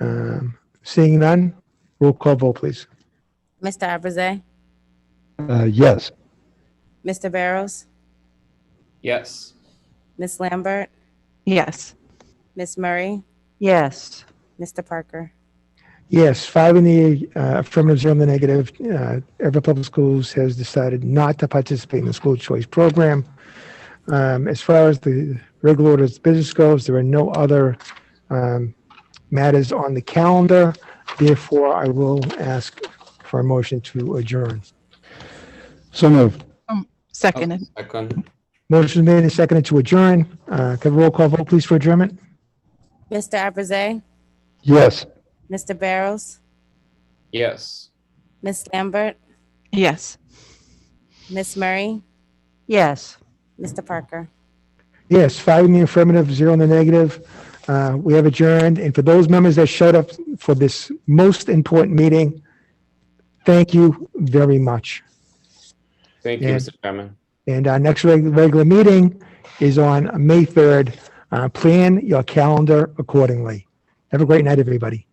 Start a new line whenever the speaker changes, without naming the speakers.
Um, Seeing none, roll call vote, please.
Mr. Abraze,
Uh, Yes.
Mr. Barrows,
Yes.
Miss Lambert,
Yes.
Miss Murray,
Yes.
Mr. Parker.
Yes, five in the uh, affirmative, zero in the negative. Uh, Everett Public Schools has decided not to participate in the school choice program. Um, as far as the regular order of business goes, there are no other um, matters on the calendar. Therefore, I will ask for a motion to adjourn.
So moved.
Seconded.
Second.
Motion made and seconded to adjourn. Uh, can roll call vote, please, for adjournment?
Mr. Abraze,
Yes.
Mr. Barrows,
Yes.
Miss Lambert,
Yes.
Miss Murray,
Yes.
Mr. Parker.
Yes, five in the affirmative, zero in the negative. Uh, We have adjourned, and for those members that showed up for this most important meeting, thank you very much.
Thank you,
Yeah.
Mr. Chairman.
And our next reg- regular meeting is on May 3rd. Uh, Plan your calendar accordingly. Have a great night, everybody.